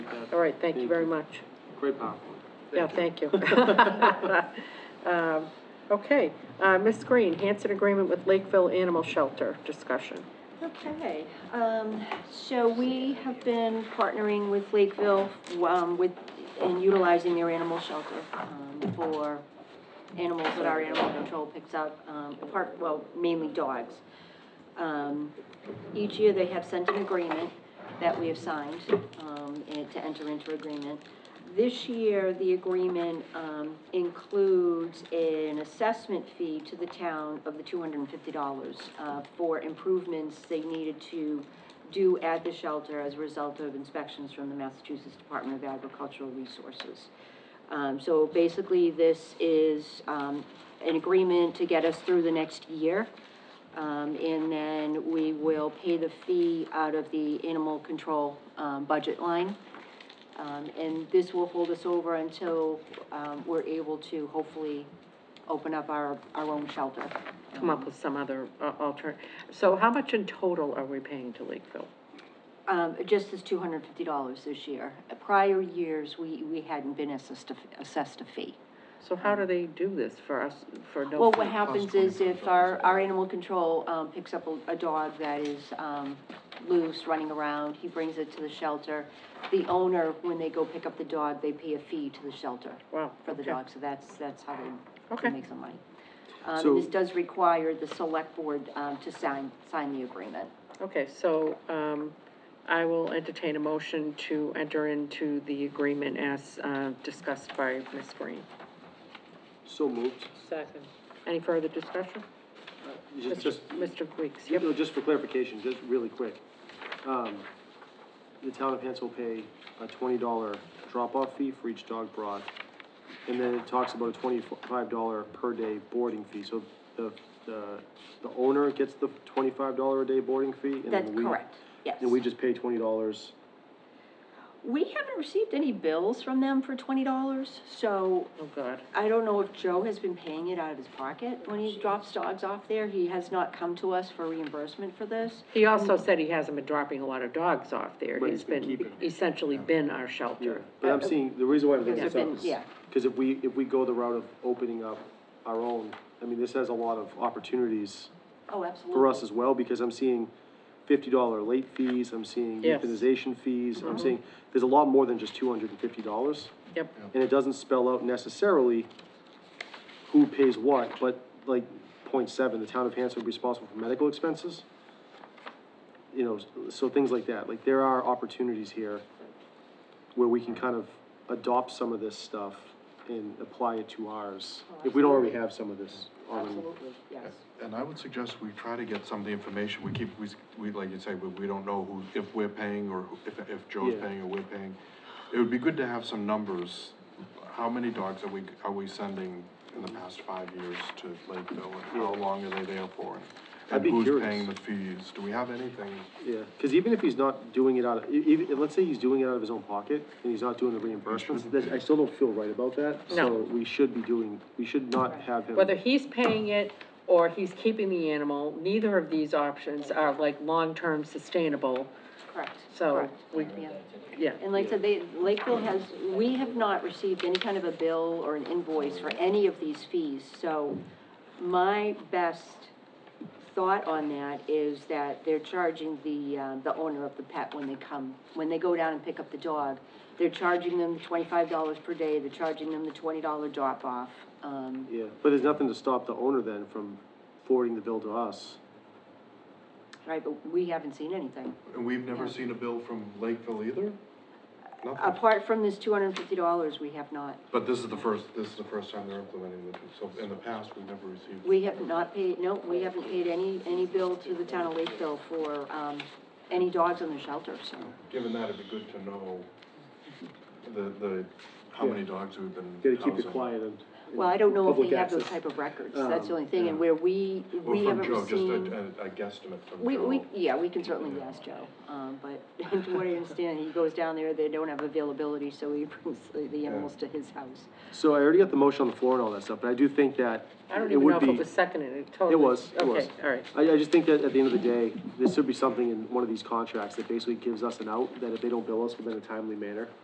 All right, thank you very much. Great PowerPoint. Yeah, thank you. Um, Okay, uh, Ms. Green, Hanson Agreement with Lakeville Animal Shelter, discussion. Okay, um, so we have been partnering with Lakeville, um, with, and utilizing their animal shelter, um, for animals that our animal control picks up, um, apart, well, mainly dogs. Um, each year they have sent an agreement that we have signed, um, and to enter into agreement. This year, the agreement, um, includes an assessment fee to the town of the two hundred and fifty dollars, uh, for improvements they needed to do at the shelter as a result of inspections from the Massachusetts Department of Agricultural Resources. Um, so basically, this is, um, an agreement to get us through the next year. Um, and then we will pay the fee out of the animal control, um, budget line. Um, and this will hold us over until, um, we're able to hopefully open up our, our own shelter. Come up with some other uh, alter, so how much in total are we paying to Lakeville? Um, just as two hundred and fifty dollars this year. Prior years, we, we hadn't been assessed, a- assessed a fee. So how do they do this for us, for no? Well, fee? what happens is if our, our animal control, um, picks up a, a dog that is, um, loose, running around, he brings it to the shelter. The owner, when they go pick up the dog, they pay a fee to the shelter. Wow, For the okay. dog, so that's, that's how they Okay. can make some money. Um, So- and this does require the select board, um, to sign, sign the agreement. Okay, so, um, I will entertain a motion to enter into the agreement as, uh, discussed by Ms. Green. So moved. Second. Any further discussion? Just, Mr. just, Mr. Weeks, you yep, know, just for clarification, just really quick. Um, the town of Hants will pay a twenty dollar drop-off fee for each dog brought. And then it talks about a twenty-five dollar per day boarding fee, so the, the, the owner gets the twenty-five dollar a day boarding fee? and then That's we- correct, yes. And we just pay twenty dollars We haven't received any bills from them for twenty dollars, so oh, God. I don't know if Joe has been paying it out of his pocket when he drops dogs off there. He has not come to us for reimbursement for this. He also said he hasn't been dropping a lot of dogs off there. But He's he's been been, keeping them. essentially been our Yeah, shelter. but I'm seeing, the reason why I'm bringing Because this I've up been- is, yeah. because if we, if we go the route of opening up our own, I mean, this has a lot of opportunities Oh, absolutely. for us as well, because I'm seeing fifty dollar late fees, I'm seeing Yes. euthanization fees, I'm seeing, there's a lot more than just two hundred and fifty dollars. Yep, And it doesn't spell out necessarily who pays what, but like point seven, the town of Hanson would be responsible for medical expenses. You know, so- so things like that, like there are opportunities here where we can kind of adopt some of this stuff and apply it to ours, if we don't already have some of this already. Absolutely, yes. And I would suggest we try to get some of the information, we keep, we, s- we, like you say, we, we don't know who, if we're paying or who- if, if Joe's Yeah. paying or we're paying. It would be good to have some numbers, how many dogs are we, are we sending in the past five years to Lakeville? And how long are they there for? and- I'd be And who's curious. paying the fees, do we have anything? Yeah, because even if he's not doing it out of, e- even, let's say he's doing it out of his own pocket, and he's not doing the reimbursements, then I still don't feel right about that. So No. we should be doing, we should not have him. whether he's paying it or he's keeping the animal, neither of these options are like long-term sustainable, Correct. so correct. we, Yeah. yeah. And like I said, they, Lakeville has, we have not received any kind of a bill or an invoice for any of these fees. So my best thought on that is that they're charging the, uh, the owner of the pet when they come, when they go down and pick up the dog. They're charging them twenty-five dollars per day, they're charging them the twenty dollar drop-off. Um, Yeah, but there's nothing to stop the owner then from forwarding the bill to us. right, but we haven't seen anything. And we've never seen a bill from Lakeville either? Nothing. Uh, Apart from this two hundred and fifty dollars, we have not, But this is the first, this is the first time they're implementing this, so in the past, we've never received. we have not paid, no, we haven't paid any, any bill to the town of Lakeville for, um, any dogs in the shelter, so. Given that, it'd be good to know the, the, how many dogs we've been. Gotta keep it housing. quiet and. Well, I don't know if we Public have those access. type of records, that's the Um, only thing, and where we, Or we from haven't Joe, received. just a, a- a guesstimate from Joe. We, we, yeah, we can certainly ask Joe, um, but to what I understand, he goes down there, they don't have availability, so he brings the- the animals to his house. So I already got the motion on the floor and all that stuff, but I do think that I don't it even know would if it be, was seconded, it totally. it was, it was. Okay, all right, I, I just think that at the end of the day, there should be something in one of these contracts that basically gives us an out, that if they don't bill us within a timely manner,